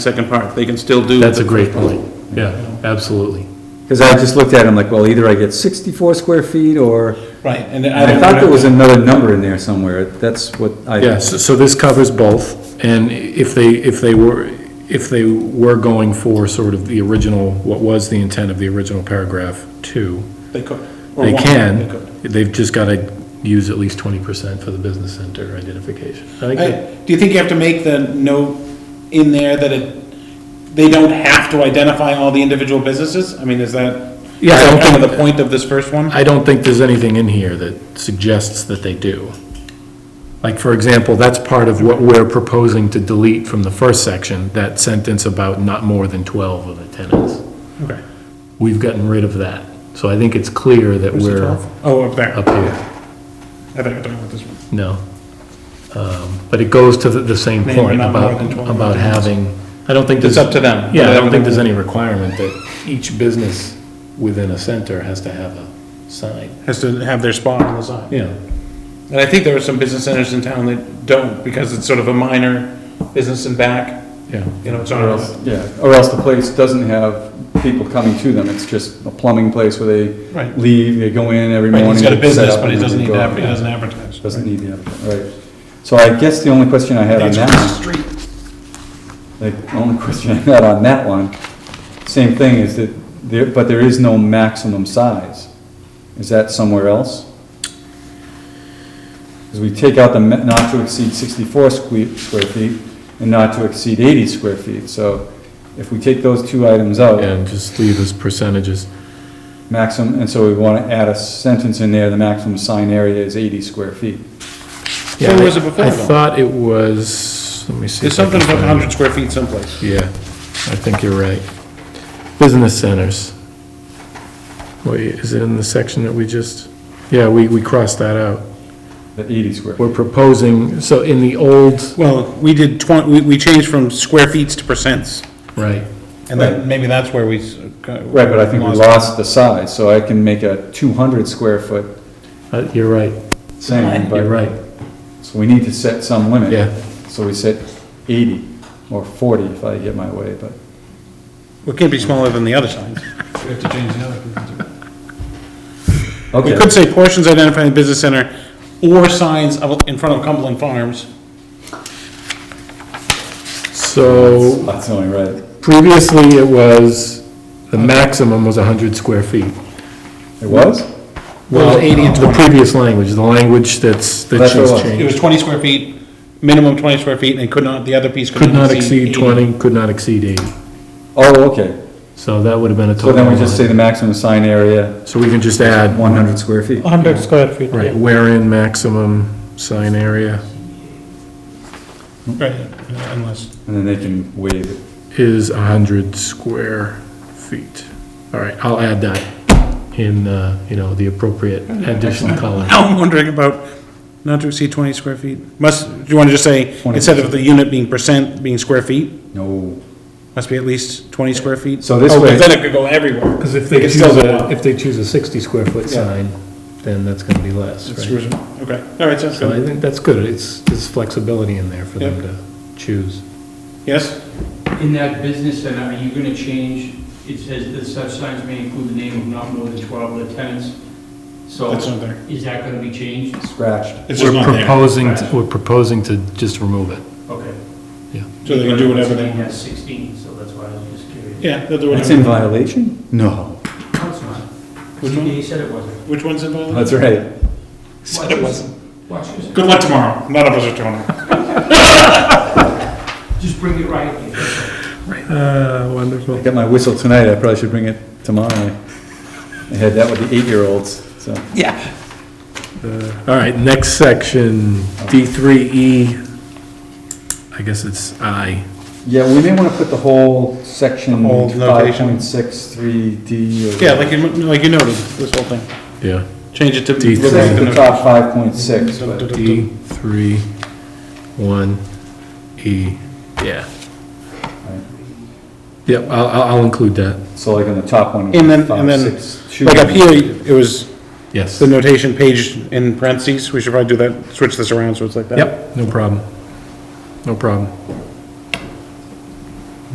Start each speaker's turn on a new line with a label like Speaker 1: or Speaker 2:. Speaker 1: second part, they can still do.
Speaker 2: That's
Speaker 1: the
Speaker 2: a great
Speaker 1: first part.
Speaker 2: point. Yeah, absolutely.
Speaker 3: Because I just looked at it, I'm like, well, either I get 64 square feet, or,
Speaker 1: Right, and I
Speaker 3: I
Speaker 1: don't.
Speaker 3: thought there was another number in there somewhere, that's what
Speaker 2: Yeah,
Speaker 3: I,
Speaker 2: so so this covers both, and if they, if they were, if they were going for sort of the original, what was the intent of the original paragraph two,
Speaker 1: They could. or
Speaker 2: they
Speaker 1: won't,
Speaker 2: can,
Speaker 1: could.
Speaker 2: they've just gotta use at least twenty percent for the business center identification. I think that-
Speaker 1: I- Do you think you have to make the note in there that it, they don't have to identify all the individual businesses? I mean, is that?
Speaker 2: Yeah, I
Speaker 1: is that
Speaker 2: don't
Speaker 1: Kind of
Speaker 2: think-
Speaker 1: the point of this first one?
Speaker 2: I don't think there's anything in here that suggests that they do. Like, for example, that's part of what we're proposing to delete from the first section, that sentence about not more than twelve of the tenants.
Speaker 1: Okay.
Speaker 2: We've gotten rid of that, so I think it's clear that
Speaker 1: Where's the
Speaker 2: we're
Speaker 1: 12? Oh, up there.
Speaker 2: up here,
Speaker 1: I think I'm talking about this one.
Speaker 2: no. Um, But it goes to the, the same
Speaker 1: Maybe
Speaker 2: point
Speaker 1: not more
Speaker 2: about,
Speaker 1: than 12
Speaker 2: about
Speaker 1: tenants.
Speaker 2: having, I don't think there's.
Speaker 1: It's up to them.
Speaker 2: Yeah, I don't think there's any requirement that each business within a center has to have a sign,
Speaker 1: Has to have their spot on the sign.
Speaker 2: yeah.
Speaker 1: And I think there are some business centers in town that don't, because it's sort of a minor business in back,
Speaker 2: Yeah.
Speaker 1: you know, it's
Speaker 3: or
Speaker 1: not.
Speaker 3: else, yeah, or else the place doesn't have people coming to them, it's just a plumbing place where they
Speaker 1: Right.
Speaker 3: leave, they go in every
Speaker 1: Right,
Speaker 3: morning.
Speaker 1: he's got a
Speaker 3: set
Speaker 1: business,
Speaker 3: up,
Speaker 1: but he
Speaker 3: and then
Speaker 1: doesn't
Speaker 3: they
Speaker 1: need
Speaker 3: go
Speaker 1: to,
Speaker 3: out.
Speaker 1: adver- he doesn't advertise.
Speaker 3: Doesn't need the, applicant, right. So I guess the only question I had on
Speaker 1: It's
Speaker 3: that
Speaker 1: across
Speaker 3: one.
Speaker 1: the street.
Speaker 3: The only question I had on that one, same thing, is that, there but there is no maximum size. Is that somewhere else? Because we take out the ma- not to exceed 64 sque- square feet and not to exceed 80 square feet. So if we take those two items out,
Speaker 2: And just leave as percentages.
Speaker 3: maximum, and so we want to add a sentence in there, the maximum sign area is 80 square feet.
Speaker 1: Where
Speaker 2: Yeah,
Speaker 1: was
Speaker 2: I-
Speaker 1: it before,
Speaker 2: I
Speaker 1: though?
Speaker 2: thought it was, let me see.
Speaker 1: There's
Speaker 2: if I can
Speaker 1: something about
Speaker 2: find it.
Speaker 1: hundred square feet someplace.
Speaker 2: Yeah, I think you're right. Business centers. Wait, is it in the section that we just, yeah, we, we crossed that out.
Speaker 3: The 80 square.
Speaker 2: We're proposing, so in the old,
Speaker 1: Well, we did twen, we, we changed from square feet to percents,
Speaker 2: right,
Speaker 1: and then maybe that's where we. s- uh, got-
Speaker 3: Right, but I think we lost the size, so I can make a 200 square foot
Speaker 2: uh, you're right,
Speaker 3: saying, but.
Speaker 2: you're right.
Speaker 3: So we need to set some limit.
Speaker 2: Yeah.
Speaker 3: So we set eighty or forty if I get my way, but
Speaker 1: We can't be smaller than the other signs.
Speaker 4: We have to change the other.
Speaker 1: We
Speaker 3: okay.
Speaker 1: could say portions identifying the business center or signs of, in front of Cumberland Farms.
Speaker 2: So
Speaker 3: That's only right.
Speaker 2: previously it was, the maximum was 100 square feet.
Speaker 3: It was?
Speaker 1: Well,
Speaker 2: Well,
Speaker 1: 80 and
Speaker 2: the previous language, the language that's, that
Speaker 3: That's what it
Speaker 2: she's
Speaker 3: was.
Speaker 1: It
Speaker 2: changed.
Speaker 1: was twenty square feet, minimum twenty square feet, and could not, the other piece could
Speaker 2: Could
Speaker 1: not
Speaker 2: not exceed
Speaker 1: 80.
Speaker 2: 20, could not exceed 80.
Speaker 3: Oh, okay.
Speaker 2: So that would have been a total.
Speaker 3: So then we just
Speaker 2: of-
Speaker 3: say the maximum sign area,
Speaker 2: So we can just add,
Speaker 3: one hundred square feet.
Speaker 1: Hundred square feet.
Speaker 2: right, wherein maximum sign area
Speaker 1: Right, unless,
Speaker 3: And then they can waive it.
Speaker 2: is 100 square feet. All right, I'll add that in, uh, you know, the appropriate additional color.
Speaker 1: now I'm wondering about not to exceed twenty square feet. Must, do you wanna just say,
Speaker 3: 20.
Speaker 1: instead of the unit being percent, being square feet,
Speaker 3: No.
Speaker 1: must be at least twenty square feet?
Speaker 3: So this
Speaker 1: Oh,
Speaker 3: way-
Speaker 1: Then it could go everywhere.
Speaker 2: Because if
Speaker 1: they They can choose still go a- up.
Speaker 2: if they choose a 60 square foot
Speaker 3: Yeah.
Speaker 2: then that's going to be less,
Speaker 1: It screws them up. Okay, all right, sounds
Speaker 2: So I
Speaker 1: good.
Speaker 2: think that's good. It's, there's flexibility in there for them
Speaker 1: Yeah.
Speaker 2: to choose.
Speaker 1: Yes?
Speaker 4: In that business center, are you gonna change, it says that such signs may include the name of not more than twelve of the tenants? So
Speaker 1: That's not there.
Speaker 4: is that gonna be changed?
Speaker 3: Scratched.
Speaker 1: It's just
Speaker 2: We're
Speaker 1: not there.
Speaker 2: proposing, to- we're proposing to just remove it.
Speaker 4: Okay.
Speaker 1: So they can do whatever they want.
Speaker 4: That's sixteen, so that's why I was just curious.
Speaker 1: Yeah, they'll do
Speaker 3: It's
Speaker 1: whatever.
Speaker 3: in violation? No.
Speaker 4: No, it's not.
Speaker 1: Which one?
Speaker 4: He said it wasn't.
Speaker 1: Which one's involved?
Speaker 3: That's right.
Speaker 1: Said it wasn't.
Speaker 4: Watch this.
Speaker 1: Good luck tomorrow. None of us are doing it.
Speaker 4: Just bring it right here.
Speaker 2: Uh,
Speaker 3: I
Speaker 2: wonderful.
Speaker 3: got my whistle tonight, I probably should bring it tomorrow. I had that with the eight-year-olds, so.
Speaker 1: Yeah.
Speaker 2: All right, next section, D3E, I guess it's I.
Speaker 3: Yeah, we may wanna put the whole section
Speaker 1: The whole
Speaker 3: five
Speaker 1: notation.
Speaker 3: point six three D or.
Speaker 1: Yeah, like you, like you noted, this whole thing.
Speaker 2: Yeah.
Speaker 1: Change it to.
Speaker 2: D E.
Speaker 3: It says the
Speaker 1: Look
Speaker 3: top five point six,
Speaker 1: at
Speaker 3: but.
Speaker 1: the-
Speaker 2: D3, 1, E, yeah. Yep, I'll, I'll I'll include that,
Speaker 3: So like on the top one.
Speaker 1: And then-
Speaker 3: five,
Speaker 1: and then,
Speaker 3: six, two.
Speaker 1: Like up here, it was
Speaker 2: yes.
Speaker 1: the notation page in parentheses. We should probably do that, switch this around so it's like that.
Speaker 2: Yep, no problem. No problem.